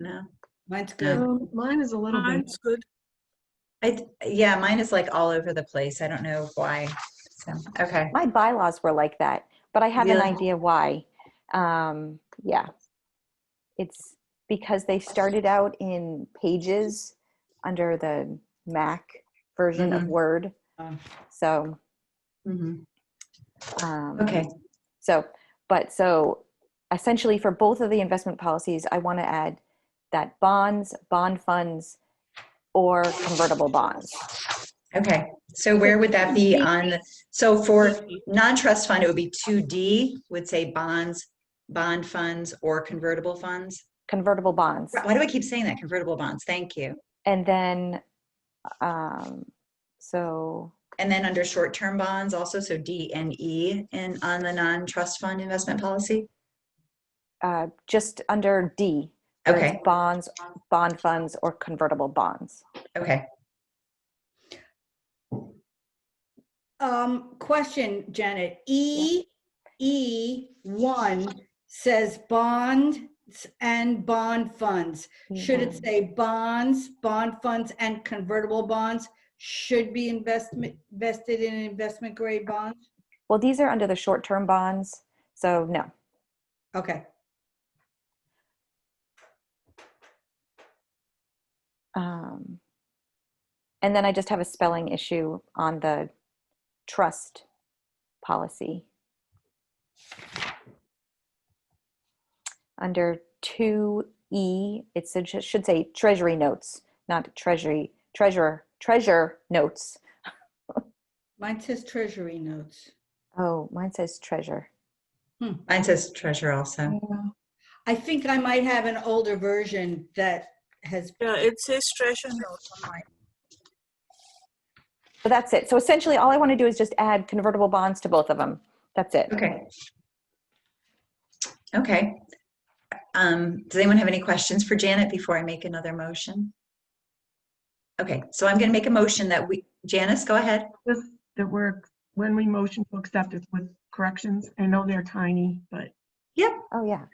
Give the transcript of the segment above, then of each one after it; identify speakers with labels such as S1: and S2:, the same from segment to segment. S1: know.
S2: Mine's good.
S3: Um, Mine is a little bit,
S4: Mine's good.
S1: I, d- yeah, mine is like all over the place. I don't know why. So, okay.
S5: My bylaws were like that, but I have an
S1: Really?
S5: idea why. Um, yeah. It's because they started out in pages under the Mac version of
S1: Mhm.
S5: Word.
S2: Oh.
S5: So,
S2: Mm-hmm.
S1: Mhm.
S5: um,
S1: Okay.
S5: So, but so essentially for both of the investment policies, I want to add that bonds, bond funds, or convertible bonds.
S1: Okay. So where would that be on? the- So for non-trust fund, it would be 2D would say bonds, bond funds or convertible funds.
S5: Convertible bonds.
S1: Why do I keep saying that? Convertible bonds. Thank you.
S5: And then, um, so
S1: And then under short-term bonds also, so D and E and on the non-trust fund investment policy?
S5: uh, just under D. where it's
S1: Okay,
S5: Bonds, bond funds, or convertible bonds.
S1: okay.
S2: Um, question, Janet. E, E one says bonds and bond funds. Should it say bonds, bond funds and convertible bonds should be investment, vested in investment grade bonds?
S5: Well, these are under the short-term bonds, so no.
S2: Okay.
S5: Um, And then I just have a spelling issue on the trust policy. Under 2E, it should should say treasury notes, not treasury, treasurer, treasure notes.
S2: Mine says treasury notes.
S5: Oh, mine says treasure.
S1: Mine says treasure also.
S2: I think I might have an older version that has,
S4: Yeah, it says treasure note on mine.
S5: So that's it. So essentially, all I want to do is just add convertible bonds to both of them. That's it.
S1: Okay. Okay. Um, does anyone have any questions for Janet before I make another motion? Okay, so I'm gonna make a motion that we, Janice, go ahead.
S6: Just that we're, when we motion to accept it's with corrections, I know they're tiny, but
S5: Oh, yeah.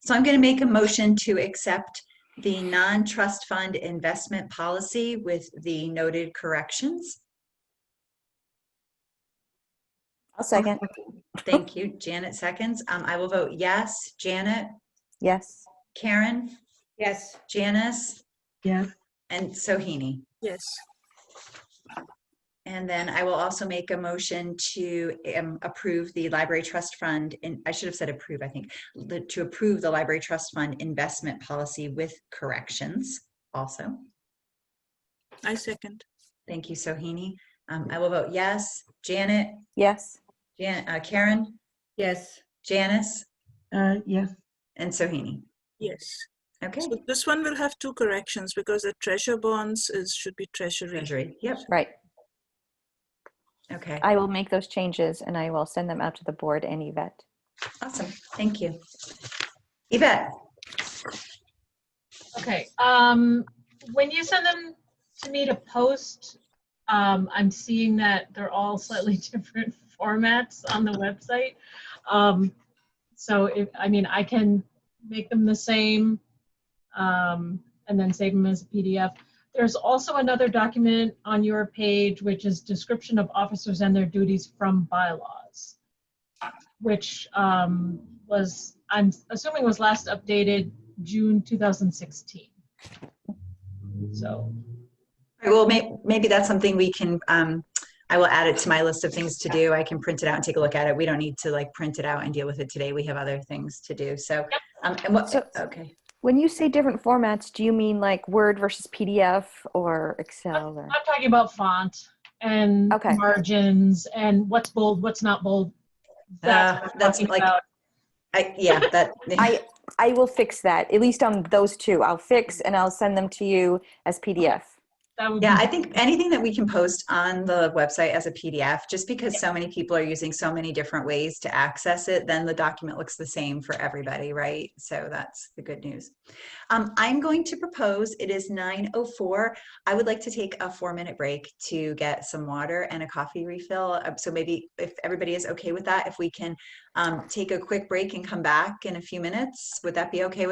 S1: So I'm going to make a motion to accept the non-trust fund investment policy with the noted corrections.
S5: I'll second.
S1: Thank you. Janet seconds. Um, I will vote yes. Janet,
S5: Yes.
S1: Karen,
S2: yes,
S1: Janice,
S6: yes,
S1: and Sohini.
S4: Yes.
S1: And then I will also make a motion to um, approve the library trust fund, and I should have said approve, I think, the- to approve the library trust fund investment policy with corrections also.
S4: I second.
S1: Thank you, Sohini. Um, I will vote yes. Janet,
S5: Yes.
S1: Jan, uh, Karen,
S2: yes.
S1: Janice,
S6: uh, yes,
S1: and Sohini.
S4: Yes.
S1: Okay,
S4: So this one will have two corrections because the treasure bonds is should be treasury.
S1: Treasury, yep,
S5: Right.
S1: okay,
S5: I will make those changes and I will send them out to the board and Yvette.
S1: awesome, thank you. Yvette,
S7: Okay, um, when you send them to me to post, um, I'm seeing that they're all slightly different formats on the website. Um, so if, I mean, I can make them the same, um, and then save them as a PDF. There's also another document on your page, which is description of officers and their duties from bylaws, which, um, was, I'm assuming was last updated June 2016. So,
S1: I will make, maybe that's something we can, um, I will add it to my list of things to do. I can print it out and take a look at it. We don't need to like print it out and deal with it today. We have other things to do, so. Um, and what,
S5: So-
S1: okay,
S5: When you say different formats, do you mean like Word versus PDF or Excel or?
S7: I'm talking about font and
S5: Okay.
S7: margins and what's bold, what's not bold.
S1: Uh,
S7: That's what I'm
S1: that's
S7: talking
S1: like-
S7: about.
S1: I, yeah, that,
S5: I, I will fix that, at least on those two. I'll fix and I'll send them to you as PDF.
S7: That would
S1: yeah,
S7: be-
S1: I think anything that we can post on the website as a PDF, just because so many people are using so many different ways to access it, then the document looks the same for everybody, right? So that's the good news. Um, I'm going to propose, it is 9:04. I would like to take a four-minute break to get some water and a coffee refill. Uh, So maybe if everybody is okay with that, if we can um, take a quick break and come back in a few minutes, would that be okay with